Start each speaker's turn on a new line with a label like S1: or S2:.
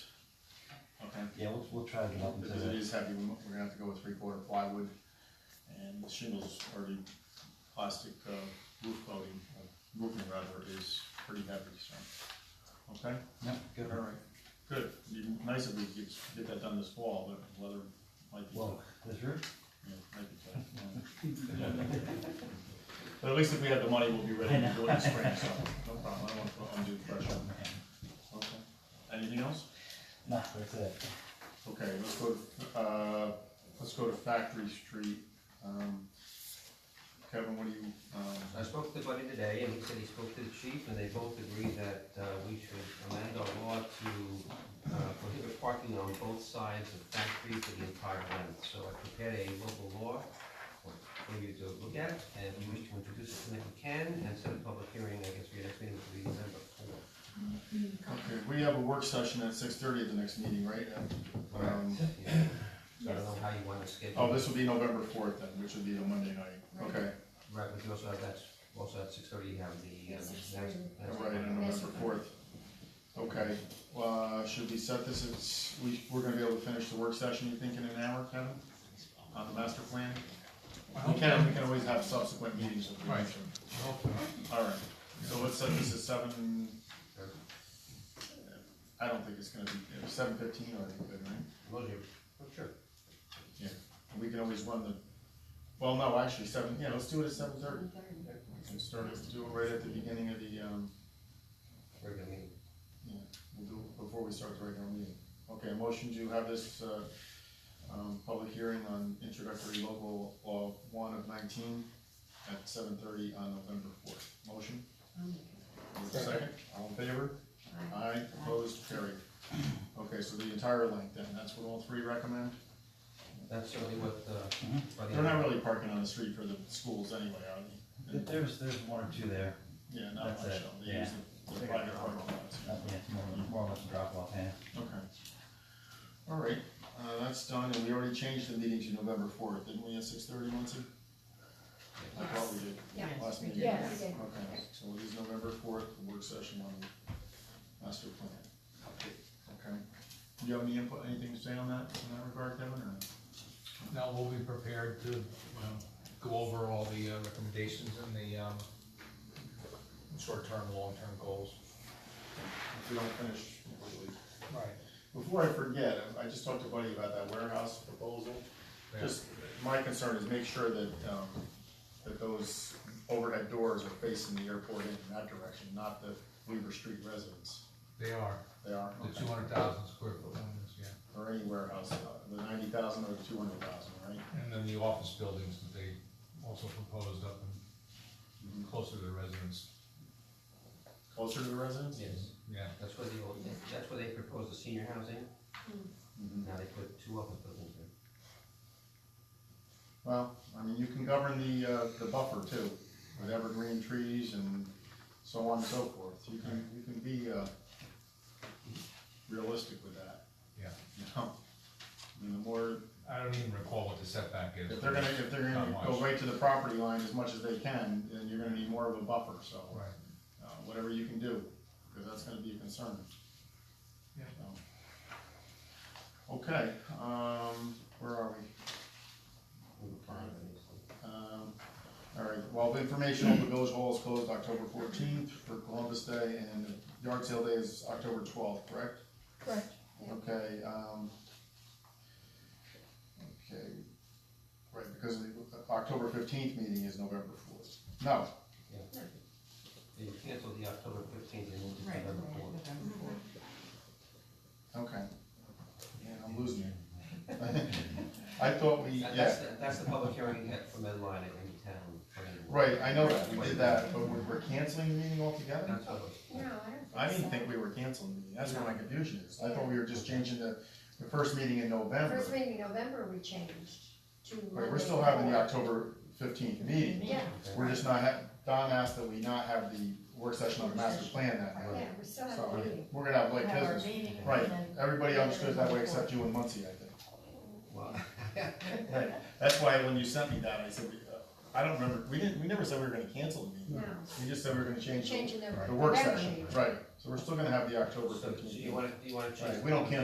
S1: Yeah, we'll, we'll try to get up into
S2: Because it
S1: the,
S2: is heavy, we're gonna have to go with three-quarter plywood, and the shingles are the plastic, uh, roof coating, uh, roofing rather, is pretty heavy, so. Okay,
S1: yep, good.
S2: all right, good, It'd be nice if we could get that done this fall, but weather might be,
S1: Well, this roof,
S2: yeah, might be tough. yeah. But at least if we have the money, we'll be ready to do it in the spring, so, no problem, I don't wanna put undue pressure on that. Okay, anything else?
S1: nah, that's it.
S2: Okay, let's go, to, uh, let's go to Factory Street. Um, Kevin, what do you, um,
S3: I spoke to Buddy today, and he said he spoke to the chief, and they both agreed that uh, we should amend our law to uh, prohibit parking on both sides of Factory for the entire length. So I prepared a local law for for you to look at, and if you wish to introduce it tonight, you can, and set a public hearing, I guess, for your next meeting, which will be November fourth.
S2: okay, we have a work session at six thirty at the next meeting, right? Um,
S3: Yeah. So I don't know how you want to schedule.
S2: Oh,
S3: it.
S2: this will be November fourth then, which would be the Monday night, okay,
S3: Right, but you also have that, also at six thirty, you have the. uh,
S4: Yes,
S3: next-
S4: 6:30.
S3: next-
S2: right, on November fourth. Okay, uh, should we set this, it's, we, we're gonna be able to finish the work session, you think, in an hour, Kevin? On the master plan? We can, we can always have subsequent meetings if we need to. All right, so let's set this at seven, I don't think it's gonna be, seven fifteen already, good, right?
S3: Well, you- well, Sure.
S2: We can always run the, well, no, actually, seven, yeah, let's do it at seven thirty.
S4: Third.
S2: Let's start it, do it right at the beginning of the, um,
S3: Regular meeting.
S2: yeah, we'll do it before we start the regular meeting. Okay, motion to have this, uh, um, public hearing on introductory local law one of nineteen at seven thirty on November fourth. Motion,
S4: I'll make
S2: Is there a second, all in favor?
S4: it. Aye.
S2: Aye, opposed, carried. Okay, so the entire length then, that's what all three recommend?
S3: That's certainly what, uh, Buddy.
S2: Mm-hmm. They're not really parking on the street for the schools anyway, are they?
S1: There- There's, there's one or two there,
S2: Yeah, not
S1: That's
S2: much,
S1: it,
S2: though. they use the, the private parking lots.
S1: Uh, yeah, it's more, more or less a drop off, yeah.
S2: Okay. All right, uh, that's done, and we already changed the meeting to November fourth, didn't we, at six thirty, Muncie? I thought we did.
S4: Yes.
S2: Last meeting.
S4: Yes.
S2: Okay, so it is November fourth, the work session on the master plan. Okay. Do you have any input, anything to say on that, in that regard, Kevin, or?
S5: Now, we'll be prepared to, um, go over all the uh, recommendations and the, um, short-term, long-term goals.
S2: If we don't finish completely.
S5: Right.
S2: Before I forget, I I just talked to Buddy about that warehouse proposal. Just, my concern is make sure that, um, that those overhead doors are facing the airport in that direction, not the Weaver Street residents.
S5: They are,
S2: They are,
S5: the two
S2: okay.
S5: hundred thousand square foot ones, yeah.
S2: or any warehouse, uh, the ninety thousand or the two hundred thousand, right?
S5: And then the office buildings that they also proposed up and closer to the residents,
S2: Closer to the residents?
S3: Yes,
S5: yeah.
S3: that's where the old, that's where they proposed the senior housing,
S2: Mhm.
S3: now they put two office buildings there.
S2: Well, I mean, you can govern the, uh, the buffer too, with evergreen trees and so on and so forth. You can, you can be, uh, realistic with that.
S5: Yeah.
S2: You know, I mean, the more,
S5: I don't even recall what the setback is.
S2: if they're gonna, if they're gonna
S5: Not
S2: go
S5: much.
S2: right to the property line as much as they can, then you're gonna need more of a buffer, so.
S5: Right,
S2: Uh, whatever you can do, cause that's gonna be a concern.
S5: Yeah.
S2: So. Okay, um, where are we?
S3: We were fine, obviously.
S2: Um, All right, well, the information on the village hall is closed October fourteenth for Columbus Day, and the yard sale day is October twelfth, correct?
S4: Correct. Yeah.
S2: Okay, um, okay, right, because the October fifteenth meeting is November fourth. No,
S3: They canceled the October fifteenth and moved it to
S4: Right.
S3: November fourth.
S2: okay, yeah, I'm losing it. I thought we,
S3: That- That's,
S2: yeah,
S3: the- that's the public hearing you had for Medline at any town. for any board.
S2: right, I know that we did that, but we're, we're canceling the meeting altogether?
S3: That's what it was.
S4: No,
S2: I
S4: I don't think so.
S2: didn't think we were canceling the meeting, that's where my confusion is, I thought we were just changing the, the first meeting in November.
S4: First meeting in November, we changed to.
S2: But we're still
S4: Monday
S2: having the
S4: before.
S2: October fifteenth meeting,
S4: Yeah,
S3: Okay.
S2: we're just not, ha- Don asked that we not have the work session on the master plan that night.
S4: yeah, we still have a
S2: So,
S4: meeting.
S2: we're gonna have like
S6: have our
S2: business,
S6: meeting. and
S2: right,
S6: then-
S2: everybody understood that way except you and Muncie, I think.
S3: Well,
S2: Right, that's why when you sent me that, I said, we, uh, I don't remember, we didn't, we never said we were gonna cancel the meeting.
S4: No,
S2: We just said we were gonna change the,
S4: changing the.
S2: the work
S4: November
S2: session,
S4: meeting.
S2: right, so we're still gonna have the October
S3: So, so
S2: fifteenth.
S3: you wanna, you wanna change.
S2: Right, we don't
S3: the-